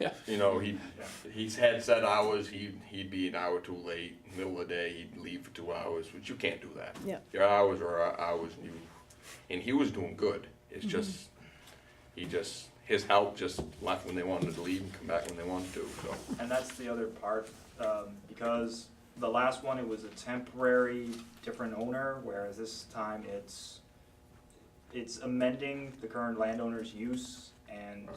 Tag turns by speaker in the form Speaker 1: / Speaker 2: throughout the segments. Speaker 1: Yeah.
Speaker 2: You know, he he's had set hours. He he'd be an hour too late, middle of the day. He'd leave for two hours, which you can't do that.
Speaker 3: Yeah.
Speaker 2: Your hours are our hours, and you, and he was doing good. It's just he just his help just left when they wanted to leave and come back when they wanted to. So
Speaker 4: And that's the other part, um, because the last one, it was a temporary different owner, whereas this time it's, it's amending the current landowner's use and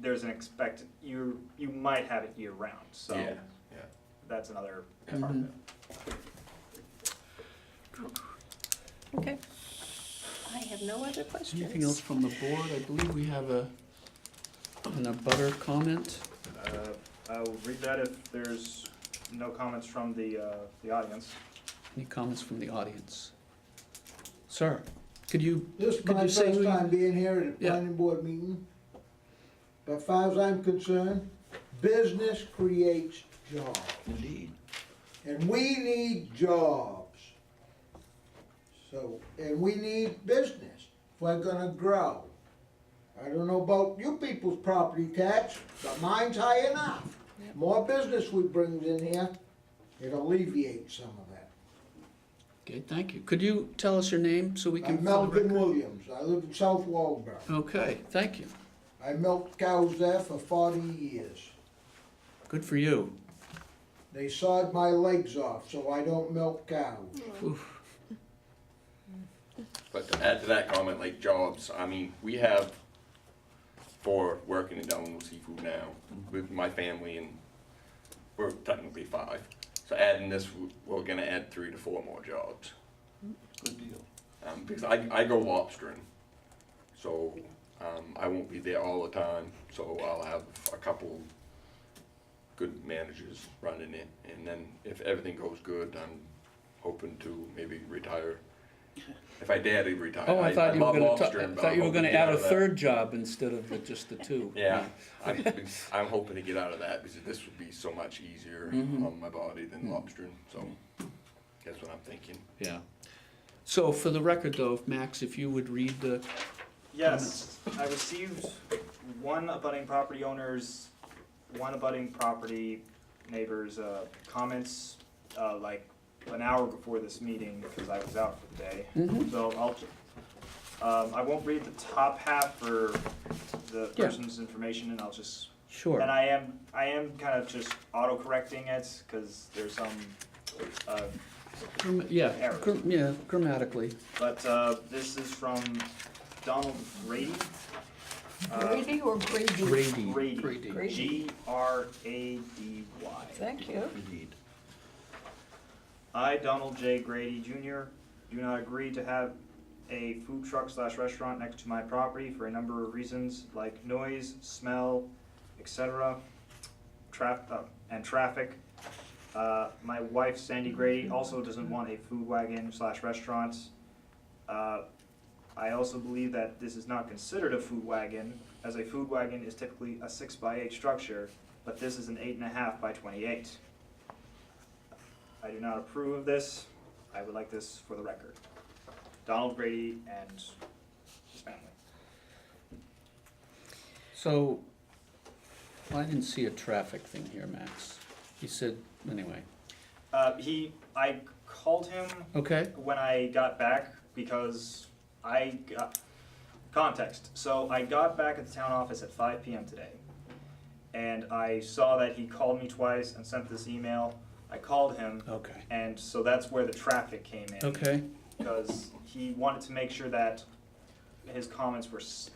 Speaker 4: there's an expect, you, you might have it year round, so
Speaker 2: yeah, yeah.
Speaker 4: that's another part of it.
Speaker 3: Okay.
Speaker 1: I have no other questions.
Speaker 5: Anything else from the board? I believe we have a, an abutter comment.
Speaker 4: Uh, I'll read that if there's no comments from the, uh, the audience.
Speaker 5: Any comments from the audience? Sir, could you,
Speaker 6: This is
Speaker 5: Could
Speaker 6: my
Speaker 5: you say who
Speaker 6: first
Speaker 5: you-
Speaker 6: time being here at a
Speaker 5: Yeah.
Speaker 6: planning board meeting. But far as I'm concerned, business creates jobs.
Speaker 5: indeed,
Speaker 6: And we need jobs. So, and we need business if we're gonna grow. I don't know about you people's property tax, but mine's high enough. More business we brings in here, it alleviates some of that.
Speaker 5: okay, thank you. Could you tell us your name so we can?
Speaker 6: I'm Melvin Williams, I live in South Waldeboro.
Speaker 5: Okay, thank you.
Speaker 6: I milked cows there for forty years.
Speaker 5: Good for you.
Speaker 6: They sawed my legs off, so I don't milk cows.
Speaker 5: Oof.
Speaker 2: But to add to that comment, like jobs, I mean, we have four working in Delano Seafood now
Speaker 7: Mm-hmm.
Speaker 2: with my family and we're technically five. So adding this, we're gonna add three to four more jobs.
Speaker 7: Good deal.
Speaker 2: Um, because I, I go lobstering, so, um, I won't be there all the time, so I'll have a couple good managers running it. And then if everything goes good, I'm hoping to maybe retire. If I dare to retire,
Speaker 5: Oh,
Speaker 2: I,
Speaker 5: I
Speaker 2: I
Speaker 5: thought you were gonna,
Speaker 2: love
Speaker 5: ta-
Speaker 2: lobstering,
Speaker 5: I
Speaker 2: but
Speaker 5: thought
Speaker 2: I'm
Speaker 5: you were
Speaker 2: hoping
Speaker 5: gonna
Speaker 2: to get
Speaker 5: add
Speaker 2: out
Speaker 5: a
Speaker 2: of that.
Speaker 5: third job instead of the- just the two.
Speaker 2: Yeah, I'm, I'm hoping to get out of that because this would be so much easier
Speaker 7: Mm-hmm.
Speaker 5: Mhm.
Speaker 2: on my body than lobstering, so that's what I'm thinking.
Speaker 5: Yeah. So for the record though, if Max, if you would read the,
Speaker 4: Yes, I received one abutting property owner's, one abutting property neighbor's uh, comments, uh, like an hour before this meeting, because I was out for the day.
Speaker 5: Mhm.
Speaker 4: So I'll, um, I won't read the top half for the
Speaker 5: Yeah.
Speaker 4: person's information, and I'll just, and
Speaker 5: sure,
Speaker 4: I am, I am kind of just auto-correcting it, because there's some, uh,
Speaker 5: Gram- yeah,
Speaker 4: Errors.
Speaker 5: gra- yeah, grammatically.
Speaker 4: but uh, this is from Donald Grady. Uh,
Speaker 1: Grady or Grady?
Speaker 5: Grady.
Speaker 4: Grady,
Speaker 1: Grady.
Speaker 4: G R A D Y.
Speaker 1: Thank you.
Speaker 7: Indeed.
Speaker 4: I, Donald J. Grady Jr., do not agree to have a food truck slash restaurant next to my property for a number of reasons, like noise, smell, etc., traf, uh, and traffic. Uh, my wife, Sandy Grady, also doesn't want a food wagon slash restaurant. Uh, I also believe that this is not considered a food wagon, as a food wagon is typically a six by eight structure, but this is an eight and a half by twenty-eight. I do not approve of this. I would like this for the record. Donald Grady and his family.
Speaker 5: So, well, I didn't see a traffic thing here, Max. He said, anyway,
Speaker 4: Uh, he, I called him
Speaker 5: okay,
Speaker 4: when I got back because I got context. So I got back at the town office at 5 p.m. today, and I saw that he called me twice and sent this email. I called him,
Speaker 5: okay,
Speaker 4: and so that's where the traffic came in.
Speaker 5: okay,
Speaker 4: because he wanted to make sure that his comments were s-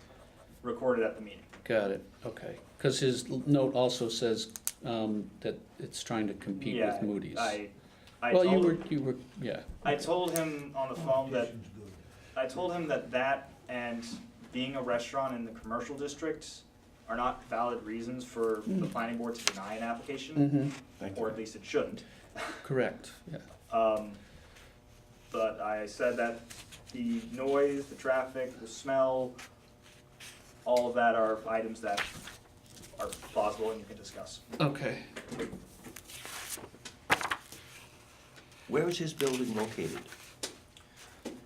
Speaker 4: recorded at the meeting.
Speaker 5: got it, okay. Because his l- note also says um, that it's trying to compete
Speaker 4: yeah,
Speaker 5: with Moody's.
Speaker 4: I, I
Speaker 5: Well, you
Speaker 4: told,
Speaker 5: were, you were, yeah,
Speaker 4: I told him on the phone that I told him that that and being a restaurant in the commercial district are not valid reasons for the planning board to deny an application,
Speaker 5: hmm
Speaker 4: or at least it shouldn't.
Speaker 5: correct, yeah.
Speaker 4: Um, but I said that the noise, the traffic, the smell, all of that are items that are plausible and you can discuss.
Speaker 5: Okay,
Speaker 7: Where is his building located?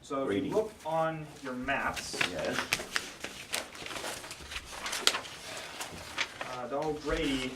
Speaker 4: So if
Speaker 7: Grady.
Speaker 4: you look on your maps,
Speaker 7: Yes.
Speaker 4: uh, Donald Grady